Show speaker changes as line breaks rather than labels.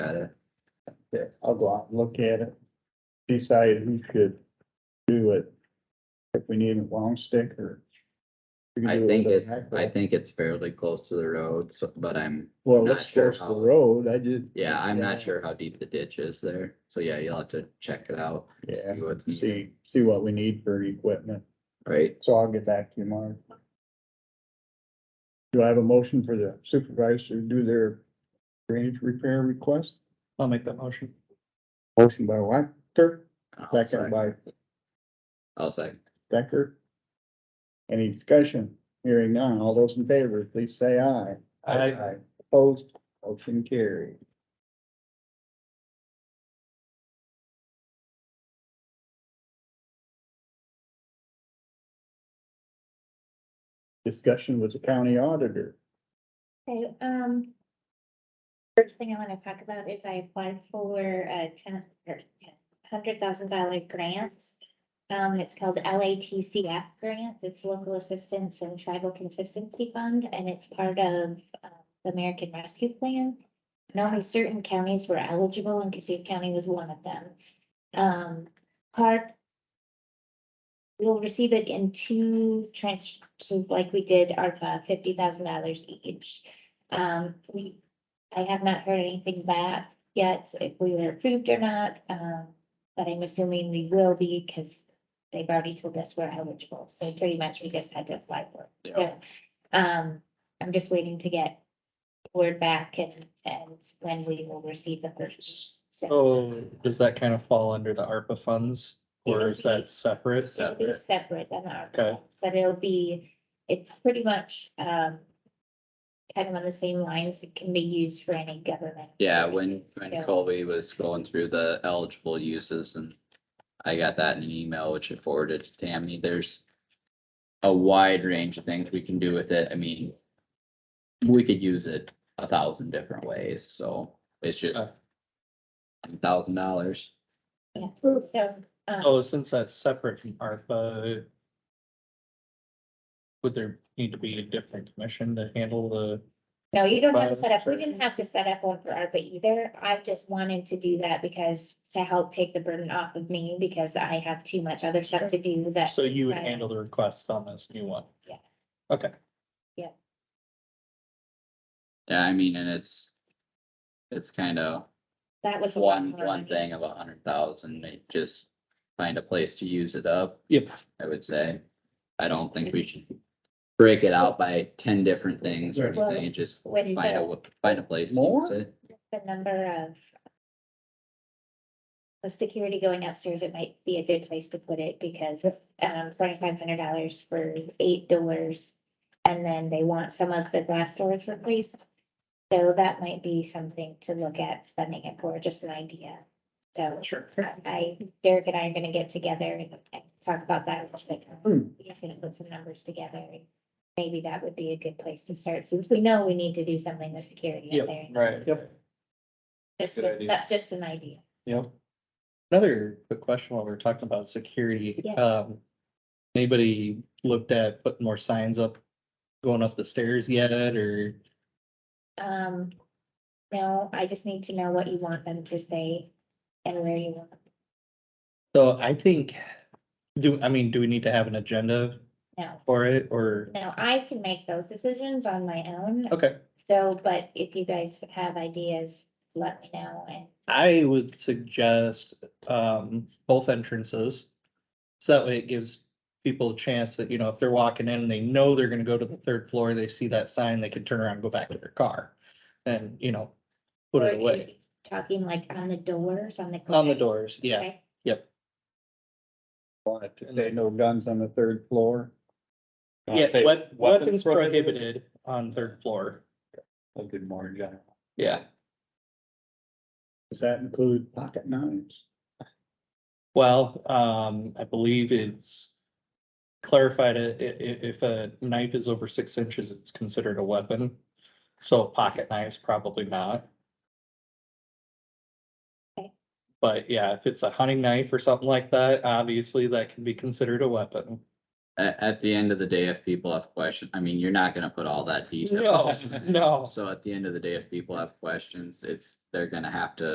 Yeah, I'll go out and look at it, decide who should do it, if we need a long stick or. we can
I
do it
think
with a
it's,
backhoe.
I think it's fairly close to the road, so, but I'm,
Well,
not
it's
sure
close to
how-
the road, I just.
yeah, I'm not sure how deep the ditch is there. So yeah, you'll have to check it out.
Yeah,
see what's needed,
see, see what we need for equipment,
Right,
so I'll get back to you, Mark. Do I have a motion for the supervisors to do their drainage repair request?
I'll make that motion.
Motion by Wactor,
I'll
second
second,
by
I'll second.
Decker. Any discussion? Hearing none. All those in favor, please say aye.
I,
Opposed, motion carried. Discussion with the county auditor.
Okay, um. First thing I wanna talk about is I applied for a ten, or hundred thousand dollar grant. Um, it's called LATCF grant, it's Local Assistance and Tribal Consistency Fund, and it's part of uh, the American Rescue Plan. And only certain counties were eligible, and Cassup County was one of them. Um, part, We'll receive it in two tranches, like we did ARPA, fifty thousand dollars each. Um, we, I have not heard anything back yet, if we were approved or not, um, but I'm assuming we will be, because they've already told us we're eligible, so pretty much we just had to apply for it. So, Um, I'm just waiting to get word back and, and when we will receive the first. set.
oh, does that kind of fall under the ARPA funds or is that separate?
It'll be separate than our.
Okay.
funds, But it'll be, it's pretty much, um, kind of on the same lines, it can be used for any government.
Yeah, when,
purpose,
when
so-
Colby was going through the eligible uses and I got that in an email, which I forwarded to Tammy, there's a wide range of things we can do with it. I mean, we could use it a thousand different ways, so it's just
Uh.
Okay.
thousand dollars.
Yeah, so, um,
Oh, since that's separate from ARPA. Would there need to be a different commission to handle the,
no, you don't have to
but-
set up, we didn't have to set up one for ARPA either, I've just wanted to do that because to help take the burden off of me, because I have too much other stuff to do that,
so you would
Right.
handle the requests on this new one?
yes.
Okay,
Yeah, I mean, and it's, it's kind of
That was. a lot
one,
more
one
money.
thing of a hundred thousand, they just find a place to use it up.
yep,
I would say. I don't think we should break it out by ten different things or
Well,
anything, and just
with
find a,
the-
wa- find a place. to
More?
use it.
the number of the security going upstairs, it might be a good place to put it because of um twenty-five hundred dollars for eight doors. And then they want some of the glass doors replaced. So that might be something to look at spending it for, just an idea. So
sure.
I, Derek and I are gonna get together and and talk about that. a little
Hmm.
bit. He's gonna put some numbers together. and Maybe that would be a good place to start since we know we need to do something with security
Yep,
out there.
right.
Yep.
Just,
Good
a-
idea.
that's just an idea.
Yep. Another quick question while we're talking about security,
Yeah.
um, anybody looked at putting more signs up? Going up the stairs yet, or,
Um, no, I just need to know what you want them to say and where you want.
so I think, do, I mean, do we need to have an agenda
No,
for it, or,
no, I can make those decisions on my own.
okay.
So, but if you guys have ideas, let me know and
I would suggest, um, both entrances. So that way it gives people a chance that, you know, if they're walking in and they know they're gonna go to the third floor, they see that sign, they can turn around and go back to their car. And, you know, put
Or
it
are
away.
you Talking like on the doors, on the.
On the doors, yeah,
Okay.
Wanted to say no guns on the third floor.
yeah, wep- weapons prohibited on third floor,
A Oh, good morning, John.
yeah.
Does that include pocket knives?
Well, um, I believe it's clarified, i- i- i- if a knife is over six inches, it's considered a weapon. So pocket knives, probably not.
Okay.
But yeah, if it's a hunting knife or something like that, obviously that can be considered a weapon.
At, at the end of the day, if people have questions, I mean, you're not gonna put all that detail.
No, no.
So at the end of the day, if people have questions, it's, they're gonna have to